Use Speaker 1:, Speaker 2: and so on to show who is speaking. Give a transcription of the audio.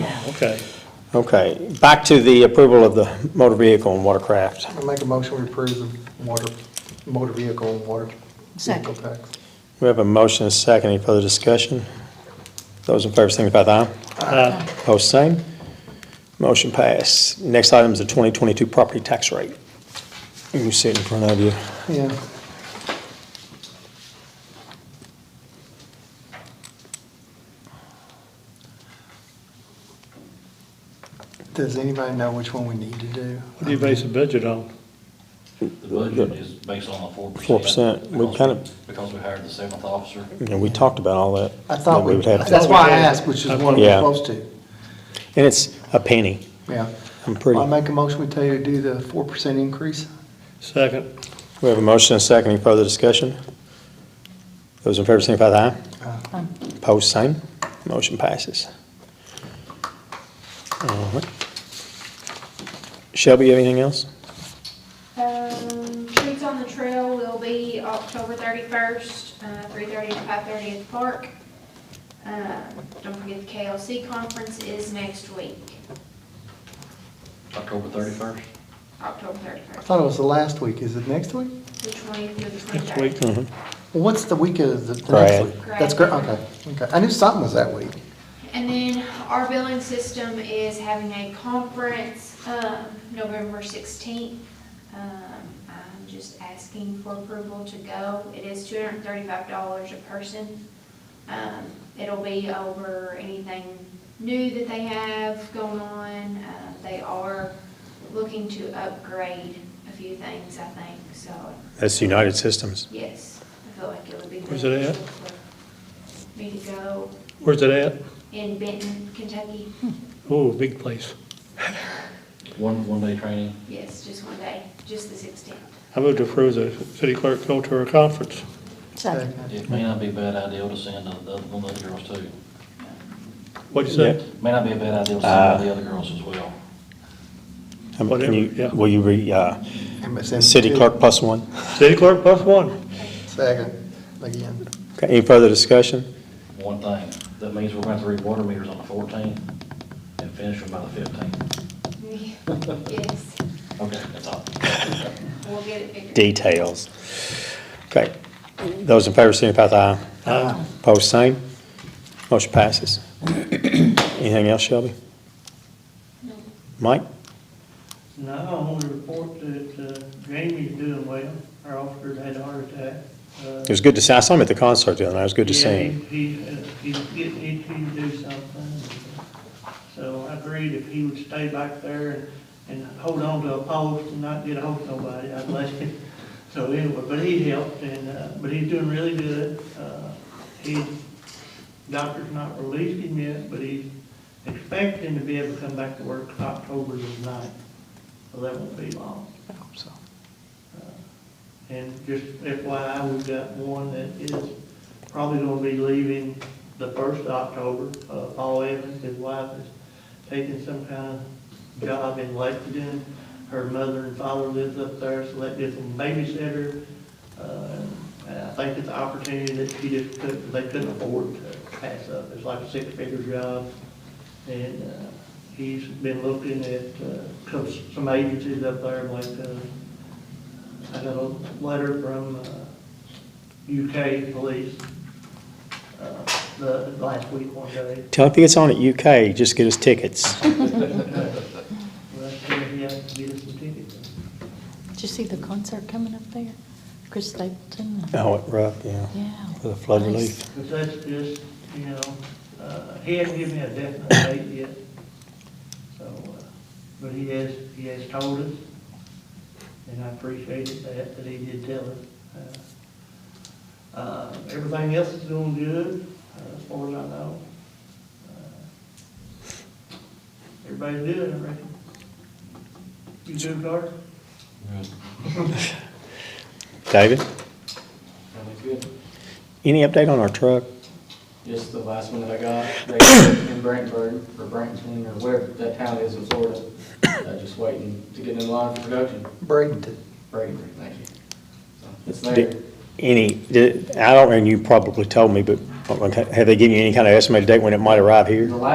Speaker 1: Okay.
Speaker 2: Okay, back to the approval of the motor vehicle and watercraft.
Speaker 3: I make a motion to approve the water, motor vehicle and water vehicle
Speaker 4: Second.
Speaker 3: tax.
Speaker 2: We have a motion and a second. Any further discussion? Those in favor signify by aye.
Speaker 1: Uh,
Speaker 2: Post same. Motion passed. Next item is the 2022 property tax rate. You can see it in front of you.
Speaker 3: Yeah, does anybody know which one we need to do?
Speaker 1: What do you base the budget on?
Speaker 5: The budget is based on the four percent.
Speaker 2: 4%. We kind of-
Speaker 5: Because we hired the seventh officer.
Speaker 2: You know, we talked about all that.
Speaker 3: I thought
Speaker 2: that
Speaker 3: we,
Speaker 2: would have to-
Speaker 3: that's why I asked, which is
Speaker 1: I
Speaker 3: one
Speaker 1: thought-
Speaker 3: we're
Speaker 2: Yeah.
Speaker 3: supposed to,
Speaker 2: And it's a penny.
Speaker 3: yeah.
Speaker 2: I'm pretty.
Speaker 3: I make a motion, we tell you to do the four percent increase.
Speaker 1: Second,
Speaker 2: We have a motion and a second. Any further discussion? Those in favor signify by aye.
Speaker 4: Aye.
Speaker 2: Post same. Motion passes. All right. Shelby, you have anything else?
Speaker 6: Um, Shoots on the Trail will be October thirty-first, uh, three thirty to five thirty at the park. Uh, don't forget the KLC conference is next week,
Speaker 5: October thirty-first?
Speaker 6: October
Speaker 3: I
Speaker 6: thirty-first,
Speaker 3: thought it was the last week, is it next week?
Speaker 6: the twentieth through the
Speaker 1: next week.
Speaker 6: twenty-third.
Speaker 2: Mm-hmm.
Speaker 3: Well, what's the week of the, the next
Speaker 2: Grad.
Speaker 3: week? That's great, okay, okay, I knew something was that week.
Speaker 6: And then our billing system is having a conference, um, November sixteenth. Um, I'm just asking for approval to go. It is two hundred and thirty-five dollars a person. Um, it'll be over anything new that they have going on. Uh, they are looking to upgrade a few things, I think, so,
Speaker 2: That's United Systems.
Speaker 6: yes, I feel like it would be.
Speaker 1: Where's it at?
Speaker 6: for Me to go
Speaker 1: Where's it at?
Speaker 6: in Benton, Kentucky.
Speaker 1: Oh, big place.
Speaker 5: One, one-day training.
Speaker 6: Yes, just one day, just the sixteenth.
Speaker 1: I moved to approve the city clerk go to her conference.
Speaker 4: Second.
Speaker 5: It may not be a bad idea to send the the other one of the girls too.
Speaker 1: What'd you say?
Speaker 5: May not be a bad idea to send one of the other girls as well.
Speaker 2: I mean, Can
Speaker 1: Whatever,
Speaker 2: you,
Speaker 1: yeah.
Speaker 2: will you be, uh,
Speaker 3: MSM.
Speaker 2: city clerk plus one?
Speaker 1: City clerk plus one.
Speaker 3: Second, again,
Speaker 2: Okay, any further discussion?
Speaker 5: One thing, that means we're going to have to read water meters on the fourteenth and finish them by the fifteenth.
Speaker 6: Yes,
Speaker 5: Okay, that's all.
Speaker 6: we'll get it figured.
Speaker 2: Details. Okay, those in favor signify by aye.
Speaker 1: Aye.
Speaker 2: Post same. Motion passes. Anything else, Shelby?
Speaker 6: No.
Speaker 2: Mike?
Speaker 7: No, I want to report that uh, Jamie's doing well. Our officer had a heart attack. Uh,
Speaker 2: It was good to see, I saw him at the concert the other night, it was good to see him.
Speaker 7: He's getting itchy to do something. So I agreed if he would stay back there and and hold on to a post and not get a hold of nobody, I'd let him. So anyway, but he helped and, uh, but he's doing really good. Uh, He, doctor's not released him yet, but he's expecting to be able to come back to work October the ninth. So that won't be long.
Speaker 3: I hope so.
Speaker 7: And just FYI, we've got one that is probably gonna be leaving the first of October. Uh, Paul Evans, his wife is taking some kind of job in Lexington. Her mother and father lives up there, so that gives them babysitter. Uh, and I think it's an opportunity that she just couldn't, they couldn't afford to pass up. It's like a six-figure job. And, uh, he's been looking at, uh, some- some agencies up there like, uh, I got a letter from uh, UK police uh, the last week one day.
Speaker 2: Tell him if he gets on at UK, just get his tickets.
Speaker 7: Well, he has to get us some tickets.
Speaker 4: Did you see the concert coming up there? Chris Stapleton? and-
Speaker 2: Oh, it rough, yeah,
Speaker 4: Yeah.
Speaker 2: for the flood
Speaker 4: Nice.
Speaker 2: relief.
Speaker 7: Because that's just, you know, uh, he hasn't given me a definite date yet. So, uh, but he has, he has told us, and I appreciated that, that he did tell us. Uh, uh, Everything else is doing good, uh, as far as I know. Uh, Everybody's good, I reckon. You too, Carter?
Speaker 5: Good.
Speaker 2: David,
Speaker 8: That was good.
Speaker 2: any update on our truck?
Speaker 8: Just the last one that I got, they in Brantford, or Branton, or wherever that town is in Florida. Uh, just waiting to get in line for production.
Speaker 3: Bradenton.
Speaker 8: Brainerd, thank you. So, It's there.
Speaker 2: Did- Any, did, I don't, and you probably told me, but okay, have they given you any kind of estimated date when it might arrive here?
Speaker 8: The last